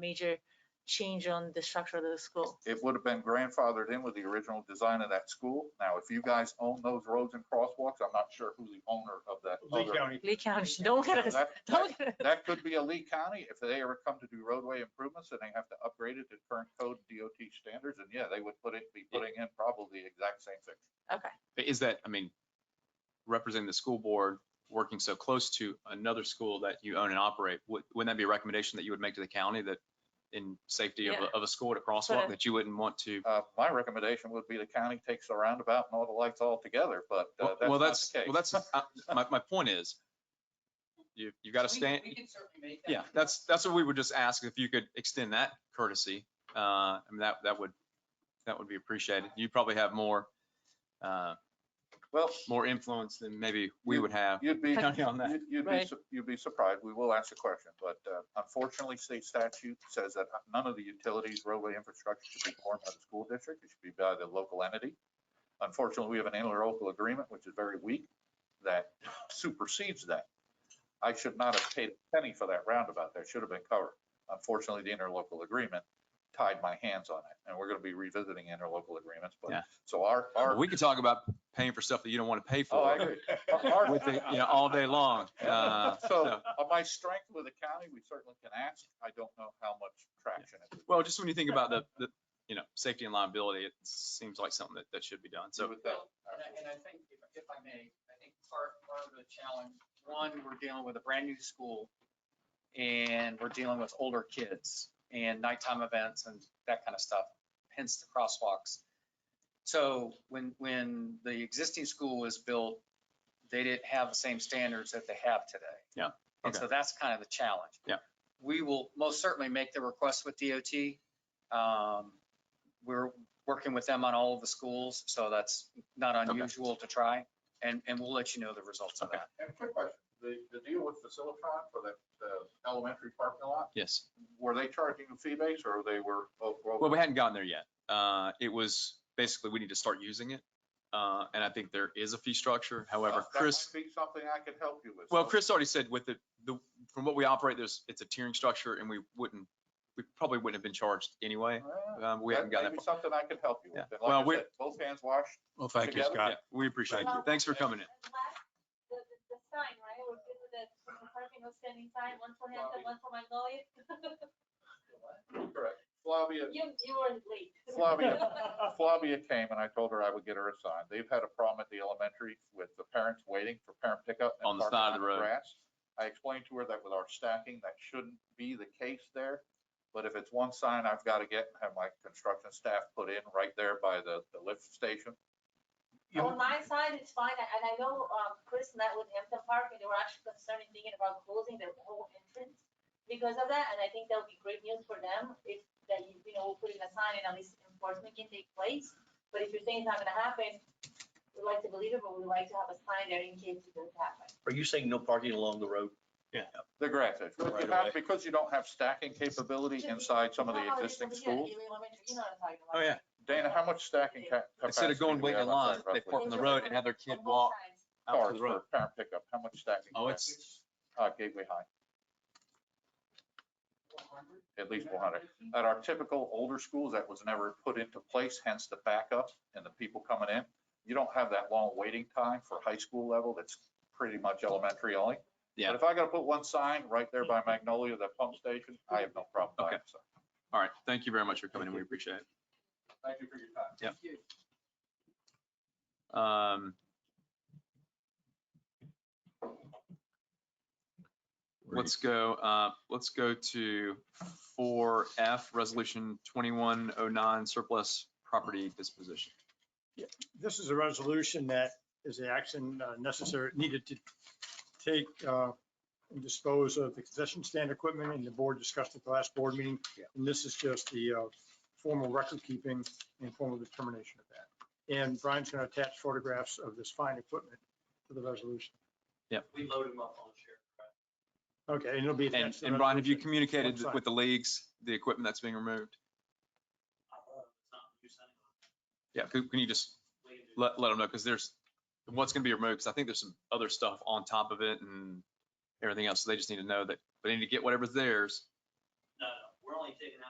major change on the structure of the school. it would have been grandfathered in with the original design of that school. Now, if you guys own those roads and crosswalks, I'm not sure who the owner of that. Lee other- County. Lee County, don't get us, That- that- don't get us. That could be a Lee County. If they ever come to do roadway improvements and they have to upgrade it to current code DOT standards, and yeah, they would put it, be putting in probably the exact same thing. Okay, But Is that, I mean, representing the school board, working so close to another school that you own and operate, would- wouldn't that be a recommendation that you would make to the county that in safety of Yeah. a, of a school at a I- crosswalk that you wouldn't want to? Uh, my recommendation would be the county takes the roundabout and all the lights all together, but uh, Well, well, that's that's, not the well, case. that's, uh, my, my point is, you, you got to We- stand, We can certainly make that. yeah, that's, that's what we would just ask, if you could extend that courtesy. Uh, I mean, that, that would, that would be appreciated. You probably have more, uh, Well, more influence than maybe we You- would have. you'd be, County on that. You'd- You'd be, Right. su- you'd be surprised. We will ask the question, but uh, unfortunately, state statute says that none of the utilities, roadway infrastructure should be formed by the school district. It should be by the local entity. Unfortunately, we have an interlocal agreement, which is very weak, that supersedes that. I should not have paid a penny for that roundabout. That should have been covered. Unfortunately, the interlocal agreement tied my hands on it, and we're going to be revisiting interlocal agreements, but, Yeah. so our, our. We could talk about paying for stuff that you don't want to pay for. Oh, I agree. Our- our- with the, you know, all day long. Uh, So on my strength with the county, we certainly can ask. I don't know how much traction it would. Well, just when you think about the, the, you know, safety and liability, it seems like something that, that should be done. So, with that. Well, And I, and I think, if if I may, I think part, part of the challenge, one, we're dealing with a brand new school and we're dealing with older kids and nighttime events and that kind of stuff, hence the crosswalks. So when, when the existing school was built, they didn't have the same standards that they have today. Yeah, And so that's kind of the challenge. Yeah. We will most certainly make the request with DOT. Um, We're working with them on all of the schools, so that's not unusual to try. And, and we'll let you know the results of Okay. that. And quick question, the, the deal with Facilitron for that, the elementary parking lot, yes. were they charging a fee base or they were? oh, Well, we hadn't gotten there yet. Uh, it was basically, we need to start using it. Uh, and I think there is a fee structure. However, uh, Chris, Oh, Be something I could help you with. well, So- Chris already said with the, the, from what we operate, there's, it's a tiering structure and we wouldn't, we probably wouldn't have been charged anyway. Well, Um, we uh, Oh, that may haven't gotten be that. far. Something I could help you with. Yeah. And Well, Like I we're- said, both hands washed. Well, thank you, Together? Scott. Yeah, We appreciate it. Thank you. Thanks for coming in. The last- The, the, the sign, right, we're good with the, the parking was standing sign, one for Hampton, one for Magnolia. Correct. Flavia, You, you were late. Flavia, Flavia came and I told her I would get her a sign. They've had a problem at the elementary with the parents waiting for parent pickup. and On the parking side of the road. grass. I explained to her that with our stacking, that shouldn't be the case there. But if it's one sign I've got to get and have my construction staff put in right there by the, the lift station. On my side, it's fine, and I know, um, Chris met with Hampton Park, and they were actually concerned thinking about closing the whole entrance because of that, and I think that'll be great news for them, if, that, you you know, we'll put in a sign and at least enforcement can take place. But if you're saying it's not gonna happen, we'd like to believe it, but we'd like to have a sign there in case it does happen. Are you saying no parking along the road? The grass is, Right You have- away. because you don't have stacking capability Should be- inside some of You the know how it is existing over here at schools. Ely Elementary, You know what I'm talking about. Oh, yeah. Dana, how much stacking ca- capacity? Instead of going do we waiting have in out line, there they park roughly? on the road and have their kid walk out to Cars the road. for parent pickup, how much stacking? Oh, capacity? it's, Uh, Gateway High. at least one hundred. At our typical older schools, that was never put into place, hence the backup and the people coming in. You don't have that long waiting time for high school level. That's pretty much elementary only. Yeah. But if I gotta put one sign right there by Magnolia, that pump station, I have no problem buying Okay. it. So, all right. Thank you very much for coming in. We appreciate it. Thank you for your time. Yep. Um, let's go, uh, let's go to four F, resolution twenty-one oh nine surplus property disposition. This is a resolution that is the action uh, necessary, needed to take uh, and dispose of the concession stand equipment and the board discussed at the last board meeting. And this is just the uh, formal record keeping and formal determination of that. And Brian's going to attach photographs of this fine equipment to the resolution. We load them up on the share. Okay, and it'll be. And, attached to the and Brian, have you resolution. communicated One sign. with the leagues, the equipment that's being removed? Yeah, can can you just let, let them know, because there's, what's gonna be removed, because I think there's some other stuff on top of it and everything else, so they just need to know that, they need to get whatever's theirs. No, no, we're only only taking out